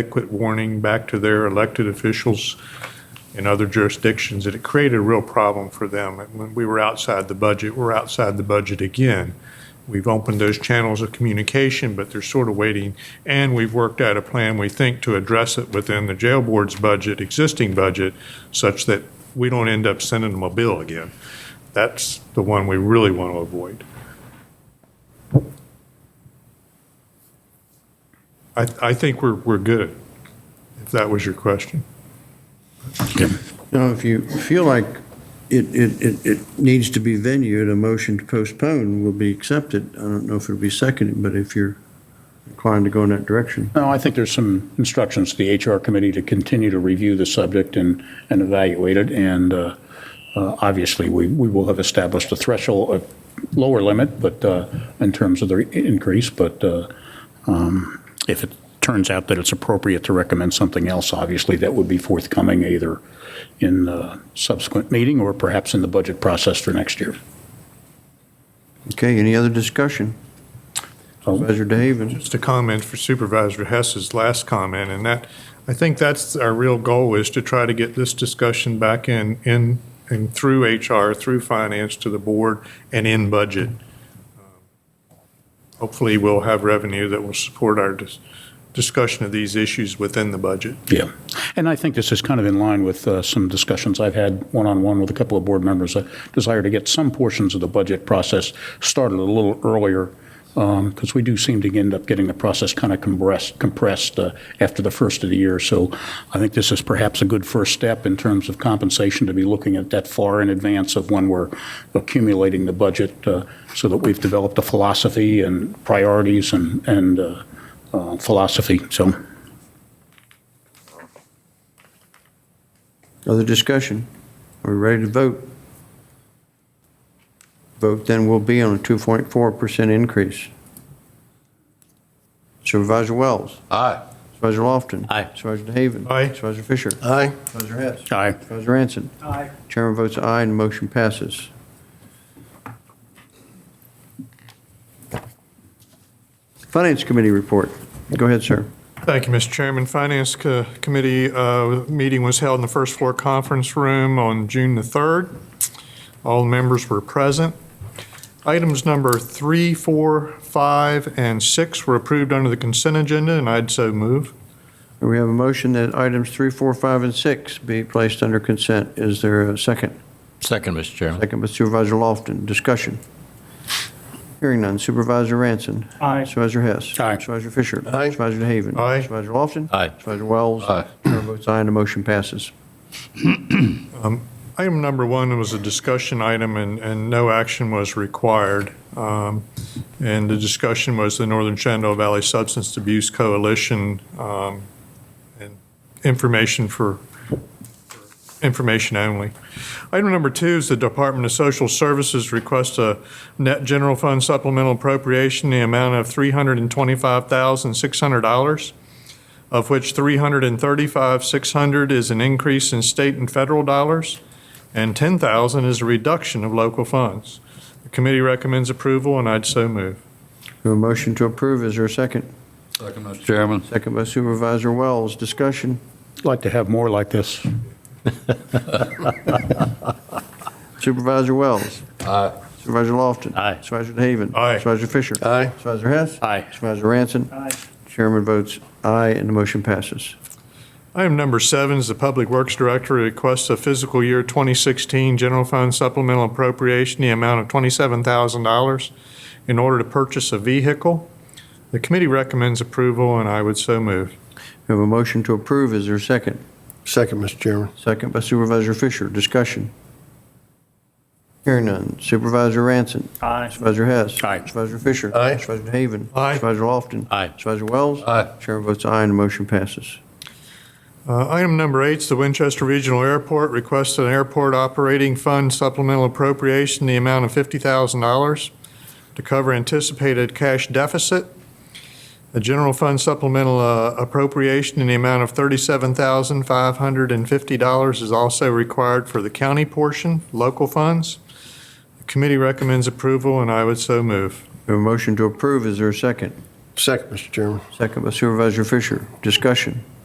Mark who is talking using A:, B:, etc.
A: adequate warning back to their elected officials in other jurisdictions, and it created a real problem for them. And When we were outside the budget, we're outside the budget again. We've opened those channels of communication, but they're sort of waiting, and we've worked out a plan, we think, to address it within the jail board's budget, existing budget, such that we don't end up sending them a bill again. That's the one we really want to avoid. I, I think we're, we're good, if that was your question.
B: Now, if you feel like it, it, it, it needs to be venued, a motion to postpone will be accepted. I don't know if it'll be seconded, but if you're inclined to go in that direction.
C: No, I think there's some instructions to the HR committee to continue to review the subject and, and evaluate it. And uh, uh, obviously, we, we will have established a threshold, a lower limit, but uh, in terms of the increase. But uh, um, if it turns out that it's appropriate to recommend something else, obviously, that would be forthcoming either in the subsequent meeting or perhaps in the budget process for next year.
B: Okay, any other discussion?
C: So,
B: Supervisor DeHaven?
A: Just a comment for Supervisor Hess's last comment, and that, I think that's our real goal, is to try to get this discussion back in, in, and through HR, through finance to the board, and in budget. Hopefully, we'll have revenue that will support our dis- discussion of these issues within the budget.
C: Yeah. And I think this is kind of in line with uh, some discussions I've had one-on-one with a couple of board members. A desire to get some portions of the budget process started a little earlier, because we do seem to end up getting the process kind of compressed, compressed uh, after the first of the year. So I think this is perhaps a good first step in terms of compensation to be looking at that far in advance of when we're accumulating the budget, uh, so that we've developed a philosophy and priorities and, and uh, uh, philosophy. So
B: Other discussion? Are we ready to vote? Vote then will be on a 2.4% increase. Supervisor Wells?
D: Aye.
B: Supervisor Lofton?
D: Aye.
B: Supervisor DeHaven?
A: Aye.
B: Supervisor Fisher?
D: Aye.
B: Supervisor Hess?
C: I
B: Supervisor Ranson? Aye. Chairman votes aye and motion passes. Finance Committee report. Go ahead, sir.
A: Thank you, Mr. Chairman. Finance Co- Committee uh, meeting was held in the first floor conference room on June the 3rd. All members were present. Items number three, four, five, and 6 were approved under the consent agenda, and I'd so move.
B: We have a motion that items three, four, five, and 6 be placed under consent. Is there a second?
D: Second, Mr. Chairman.
B: Second by Supervisor Lofton. Discussion. Hearing none. Supervisor Ranson. Aye. Supervisor Hess.
C: Aye.
B: Supervisor Fisher.
D: Aye.
B: Supervisor DeHaven.
A: Aye.
B: Supervisor Lofton.
D: Aye.
B: Supervisor Wells.
D: Aye.
B: Chairman votes aye and the motion passes.
A: Item number one was a discussion item, and, and no action was required. Um, And the discussion was the Northern Shenandoah Valley Substance Abuse Coalition um, and information for, information only. Item number two is the Department of Social Services requests a net general fund supplemental appropriation, in the amount of $325,600 of which 335,600 is an increase in state and federal dollars, and 10,000 is a reduction of local funds. The committee recommends approval, and I'd so move.
B: We have a motion to approve. Is there a second?
D: Second, Mr. Chairman.
B: Second by Supervisor Wells. Discussion.
C: like to have more like this.
B: Supervisor Wells.
D: Aye.
B: Supervisor Lofton.
D: Aye.
B: Supervisor DeHaven.
A: Aye.
B: Supervisor Fisher.
D: Aye.
B: Supervisor Hess.
C: Aye.
B: Supervisor Ranson. Aye. Chairman votes aye, and the motion passes.
A: Item number seven is the Public Works Director requests a fiscal year 2016 general fund supplemental appropriation, in the amount of $27,000, in order to purchase a vehicle. The committee recommends approval, and I would so move.
B: We have a motion to approve. Is there a second?
E: Second, Mr. Chairman.
B: Second by Supervisor Fisher. Discussion. Hearing none. Supervisor Ranson. Aye. Supervisor Hess.
C: Aye.
B: Supervisor Fisher.
D: Aye.
B: Supervisor DeHaven.
A: Aye.
B: Supervisor Lofton.
D: Aye.
B: Supervisor Wells.
D: Aye.
B: Chairman votes aye, and the motion passes.
A: Uh, Item number eight is the Winchester Regional Airport requests an airport operating fund supplemental appropriation in the amount of $50,000 to cover anticipated cash deficit. A general fund supplemental uh, appropriation in the amount of $37,550 is also required for the county portion, local funds. The committee recommends approval, and I would so move.
B: We have a motion to approve. Is there a second?
E: Second, Mr. Chairman.
B: Second by Supervisor Fisher. Discussion.